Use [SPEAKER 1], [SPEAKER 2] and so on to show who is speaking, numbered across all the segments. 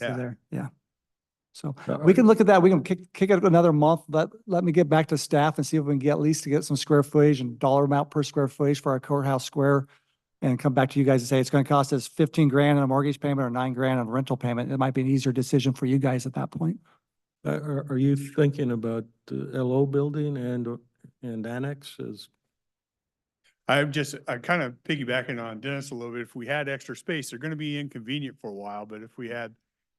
[SPEAKER 1] to
[SPEAKER 2] Yeah.
[SPEAKER 1] there, yeah. So
[SPEAKER 3] So-
[SPEAKER 1] we can look at that, we can kick, kick it another month, let, let me get back to staff and see if we can get, at least to get some square footage and dollar amount per square footage for our courthouse square. And come back to you guys and say, it's gonna cost us fifteen grand on a mortgage payment or nine grand on a rental payment. It might be an easier decision for you guys at that point.
[SPEAKER 3] Uh, Are, are you thinking about the LO building and, or- and annexes?
[SPEAKER 2] I'm just, I'm kind of piggybacking on Dennis a little bit. If we had extra space, they're going to be inconvenient for a while, but if we had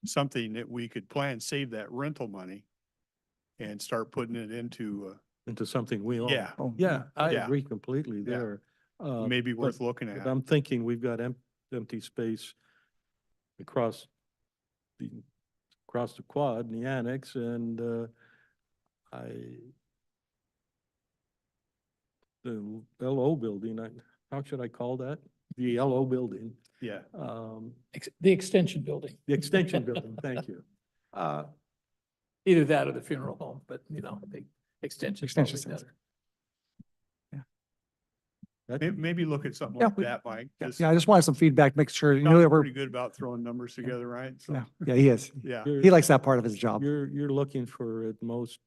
[SPEAKER 2] something that we could plan, save that rental money and start putting it into,
[SPEAKER 3] into something we
[SPEAKER 2] uh,
[SPEAKER 3] own?
[SPEAKER 2] yeah,
[SPEAKER 1] Oh,
[SPEAKER 3] Yeah, I
[SPEAKER 2] Yeah.
[SPEAKER 3] agree completely
[SPEAKER 2] Yeah.
[SPEAKER 3] there. Uh,
[SPEAKER 2] maybe
[SPEAKER 3] but-
[SPEAKER 2] worth looking
[SPEAKER 3] but
[SPEAKER 2] at.
[SPEAKER 3] I'm thinking we've got em- empty space across the, across the quad and the annex and, uh, I, the LO building, I, how should I call that? The LO building,
[SPEAKER 2] Yeah,
[SPEAKER 3] um,
[SPEAKER 4] Ex- The extension building.
[SPEAKER 3] the extension building, thank you. Uh,
[SPEAKER 4] Either that or the funeral home, but you know, the extension. is
[SPEAKER 1] Extension
[SPEAKER 4] probably
[SPEAKER 1] sounds-
[SPEAKER 4] better.
[SPEAKER 3] that-
[SPEAKER 2] May- maybe look at something
[SPEAKER 1] Yeah,
[SPEAKER 2] like
[SPEAKER 1] we-
[SPEAKER 2] that, Mike.
[SPEAKER 1] Yeah,
[SPEAKER 2] Just-
[SPEAKER 1] yeah, I just wanted some feedback, make sure, you know,
[SPEAKER 2] Tom's
[SPEAKER 1] that we're,
[SPEAKER 2] pretty good about throwing numbers together, right? So,
[SPEAKER 1] yeah, yeah, he is.
[SPEAKER 2] yeah,
[SPEAKER 3] you're-
[SPEAKER 1] He likes that part of his job.
[SPEAKER 3] You're, you're looking for at most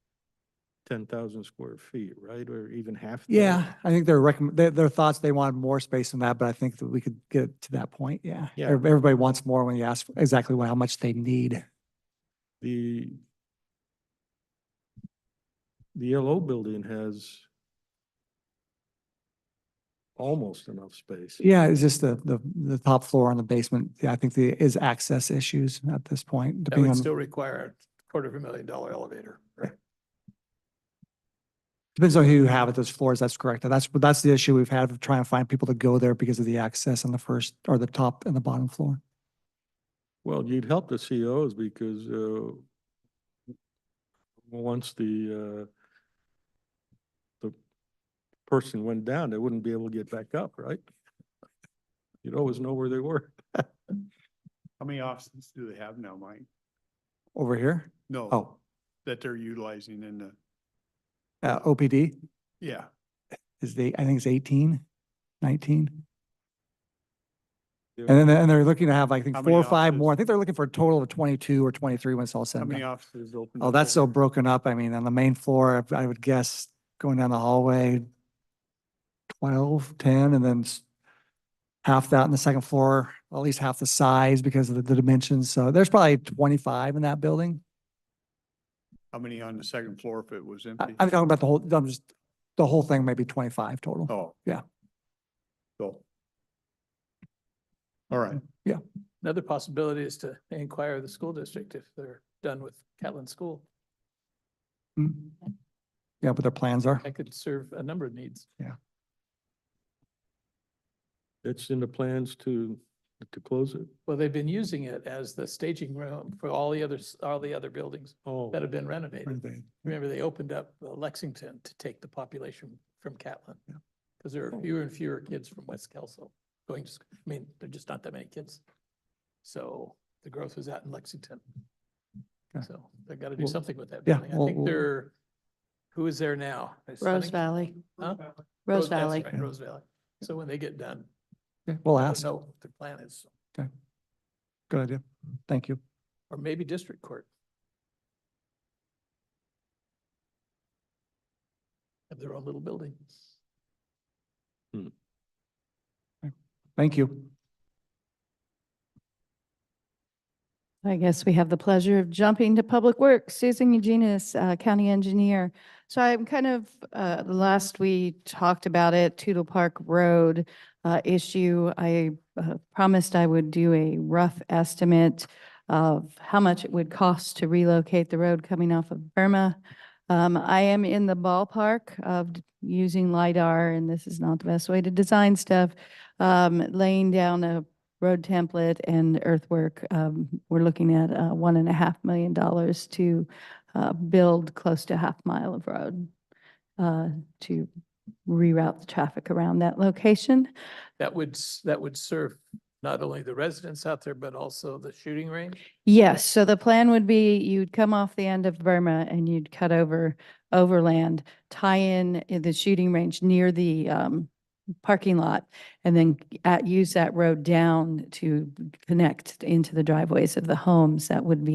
[SPEAKER 3] ten thousand square feet, right? Or even half? that?
[SPEAKER 1] Yeah, I think their recommend, their, their thoughts, they wanted more space than that, but I think that we could get it to that point, yeah.
[SPEAKER 3] Yeah.
[SPEAKER 1] Ev- Everybody wants more when you ask exactly what, how much they need.
[SPEAKER 3] The the LO building has almost enough space.
[SPEAKER 1] Yeah, it's just the, the, the top floor on the basement, yeah, I think there is access issues at this point,
[SPEAKER 4] That
[SPEAKER 1] depending on,
[SPEAKER 4] would still require a quarter of a million dollar elevator, right?
[SPEAKER 1] depends on who you have at those floors, that's correct. That's, that's the issue we've had of trying to find people to go there because of the access on the first, or the top and the bottom floor.
[SPEAKER 3] Well, you'd help the COs because uh, once the uh, the person went down, they wouldn't be able to get back up, right? You'd always know where they were.
[SPEAKER 2] how many offices do they have now, Mike?
[SPEAKER 1] Over here,
[SPEAKER 2] No,
[SPEAKER 1] oh,
[SPEAKER 2] that they're utilizing in the,
[SPEAKER 1] uh, OPD
[SPEAKER 2] yeah,
[SPEAKER 1] is the, I think it's 18, 19.
[SPEAKER 3] Yeah.
[SPEAKER 1] And then, and they're looking to have, I think,
[SPEAKER 2] How
[SPEAKER 1] four or
[SPEAKER 2] many
[SPEAKER 1] five more. I
[SPEAKER 2] offices?
[SPEAKER 1] think they're looking for a total of twenty-two or twenty-three when it's all said
[SPEAKER 2] how
[SPEAKER 1] and
[SPEAKER 2] many
[SPEAKER 1] done.
[SPEAKER 2] offices open?
[SPEAKER 1] Oh, that's so broken up. I mean, on the main floor, I I would guess going down the hallway, 12, 10, and then s- half that on the second floor, at least half the size because of the- the dimensions. So there's probably twenty-five in that building.
[SPEAKER 2] How many on the second floor if it was
[SPEAKER 1] I-
[SPEAKER 2] empty?
[SPEAKER 1] I'm talking about the whole, I'm just, the whole thing maybe twenty-five total.
[SPEAKER 2] Oh.
[SPEAKER 1] Yeah.
[SPEAKER 2] So. All right,
[SPEAKER 4] Another possibility is to inquire the school district if they're done with Catlin School.
[SPEAKER 1] Mm. Yeah, what their plans are.
[SPEAKER 4] That could serve a number of needs.
[SPEAKER 3] It's in the plans to, to close it?
[SPEAKER 4] Well, they've been using it as the staging room for all the others, all the other buildings
[SPEAKER 3] Oh,
[SPEAKER 4] that have been renovated.
[SPEAKER 1] Yeah,
[SPEAKER 4] Remember, they opened up uh, Lexington to take the population from Catlin.
[SPEAKER 1] Yeah.
[SPEAKER 4] Because there
[SPEAKER 1] Oh.
[SPEAKER 4] are fewer and fewer kids from West Kelso going to, sc- I mean, there are just not that many kids. So the growth was out in Lexington.
[SPEAKER 1] Okay.
[SPEAKER 4] So they've got to do
[SPEAKER 1] Well,
[SPEAKER 4] something with that
[SPEAKER 1] yeah,
[SPEAKER 4] building. I
[SPEAKER 1] well,
[SPEAKER 4] think
[SPEAKER 1] well-
[SPEAKER 4] they're, who is there now? Is Sunning-
[SPEAKER 5] Rose Valley,
[SPEAKER 4] Huh?
[SPEAKER 5] Rose
[SPEAKER 4] Oh, that's
[SPEAKER 5] Valley.
[SPEAKER 4] right, Rose Valley. So when they get done,
[SPEAKER 1] We'll
[SPEAKER 4] they'll
[SPEAKER 1] ask.
[SPEAKER 4] know what their plan is,
[SPEAKER 1] Good idea. Thank you.
[SPEAKER 4] or maybe district court. Have their own little building.
[SPEAKER 1] Thank you.
[SPEAKER 5] I guess we have the pleasure of jumping to Public Works. Susan Eugenis, uh, County Engineer. So I'm kind of, uh, the last we talked about it, Tootle Park Road uh, issue. I uh, promised I would do a rough estimate of how much it would cost to relocate the road coming off of Burma. Um, I am in the ballpark of d- using LiDAR, and this is not the best way to design stuff, um, laying down a road template and earthwork, um, we're looking at uh, one and a half million dollars to uh, build close to a half mile of road uh, to reroute the traffic around that location.
[SPEAKER 4] That would, s- that would serve not only the residents out there, but also the shooting range.
[SPEAKER 5] Yes, so the plan would be you'd come off the end of Burma and you'd cut over overland, tie in i- the shooting range near the um, parking lot and then at, use that road down to connect into the driveways of the homes that would be